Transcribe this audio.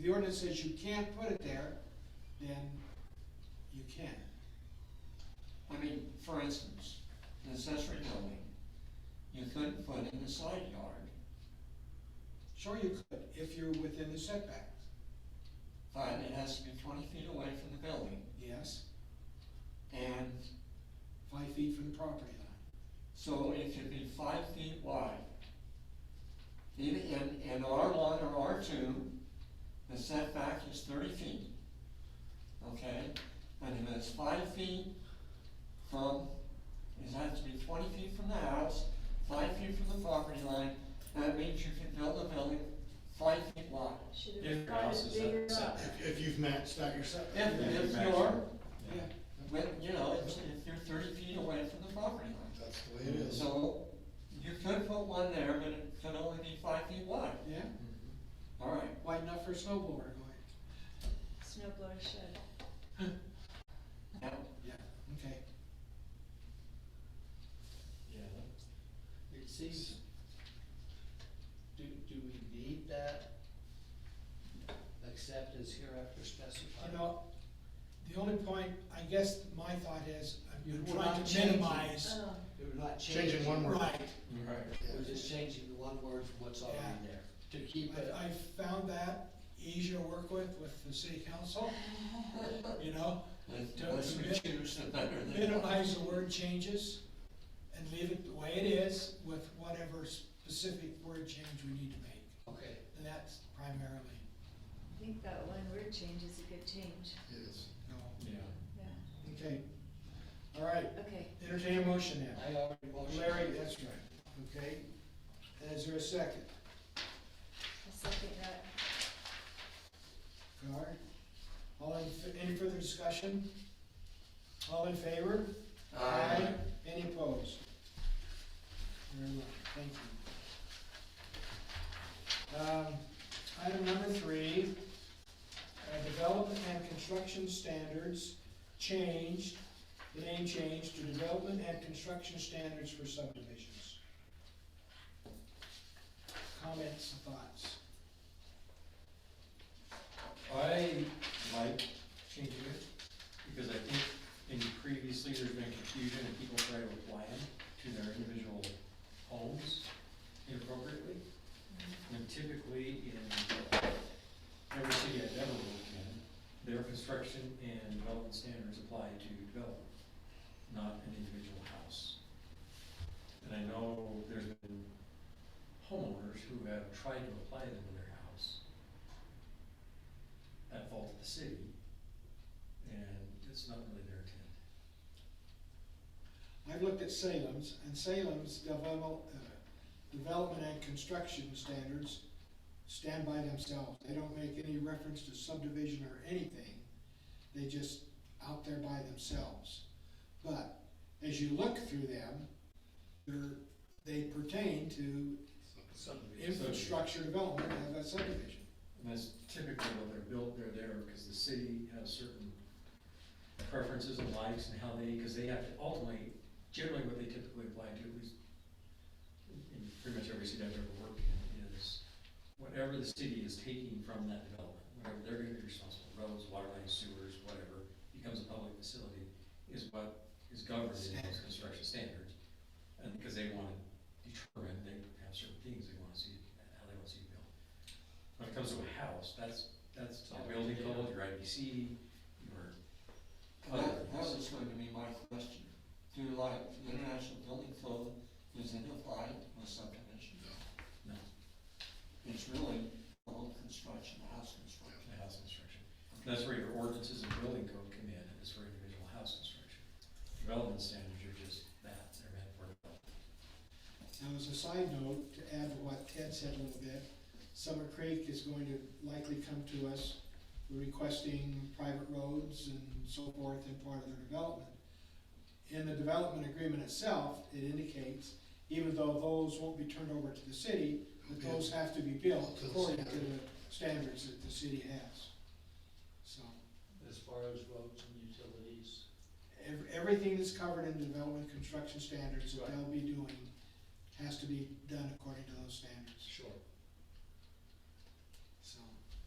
the ordinance says you can't put it there, then you can. I mean, for instance, an accessory building, you couldn't put in the side yard, Sure you could, if you're within the setback, but it has to be twenty feet away from the building, yes, and five feet from the property line. so it should be five feet wide. Even in, in R one or R two, the setback is thirty feet, okay? And if it's five feet from, it has to be twenty feet from the house, five feet from the property line, that means you can build a building five feet wide. Should If your have tried it house is bigger up- up. set- If, if you've matched out yourself. If, Yeah, if exactly. you're, Yeah, when, you know, if, if you're thirty feet away from the property line. That's the way it is. So, you could put one there, but it could only be five feet wide, yeah, alright. wide enough for a snowblower going, Snowblower shed. Now, yeah, okay. Yeah. It seems, do, do we need that? Except as hereafter specified? You know, the only point, I guess my thought is, You're I'm trying not to changing. minimize, Oh, We're not changing. Changing one word. right, Right. We're just changing the one word from what's already Yeah. there, to keep it. I, I found that easier to work with, with the city Oh. council, you know? the less we choose, the better they are. Minimize the word changes and leave it the way it is with whatever specific word change we need to make. Okay, And that's primarily, I think that one word change is a good change, It is. no. Yeah. yeah, Okay, all right, okay. entertain a motion now. I already motioned. Larry, that's right, okay? Is there a second? I second that. All right. All in, any further discussion? All in favor? Aye. Any opposed? Very well, thank you. Um, Item number three, uh, development and construction standards changed, the name changed to development and construction standards for subdivisions. Comments, thoughts? I like changing it, because I think in previously there's been confusion and people try to apply them to their individual homes inappropriately. And typically in every city I've ever worked in, their construction and development standards apply to development, not an individual house. And I know there's been homeowners who have tried to apply them to their house at fault of the city, and it's not really their intent. I've looked at Salem's, and Salem's develop, uh, development and construction standards stand by themselves. They don't make any reference to subdivision or anything. They just out there by themselves. But as you look through them, they're, they pertain to infrastructure development of a subdivision. And that's typically what they're built, they're there because the city has certain preferences and likes and how they, because they have to ultimately, generally what they typically apply to, at least in pretty much every city I've ever worked in, is whatever the city is taking from that development, whatever they're gonna be responsible, roads, water lines, sewers, whatever, becomes a public facility, is what is governed in those construction standards. And because they wanna determine, they have certain things they wanna see, how they wanna see it built. When it comes to a house, that's, that's your building code, your IBC, your other That, that was going to be my question. Do you like the international building code is it applied with subdivision? No. It's really all construction, house construction. the house construction. And That's where your ordinances and building code come in, and it's for individual house construction. Development standards are just that, they're meant for development. Now, as a side note, to add to what Ted said a little bit, Summer Creek is going to likely come to us requesting private roads and so forth in part of their development. In the development agreement itself, it indicates, even though those won't be turned over to the city, that those have to be built according to the standards that the city has. So, As far as roads and utilities. ev- everything that's covered in development construction standards that they'll be doing has to be done according to those standards. Sure.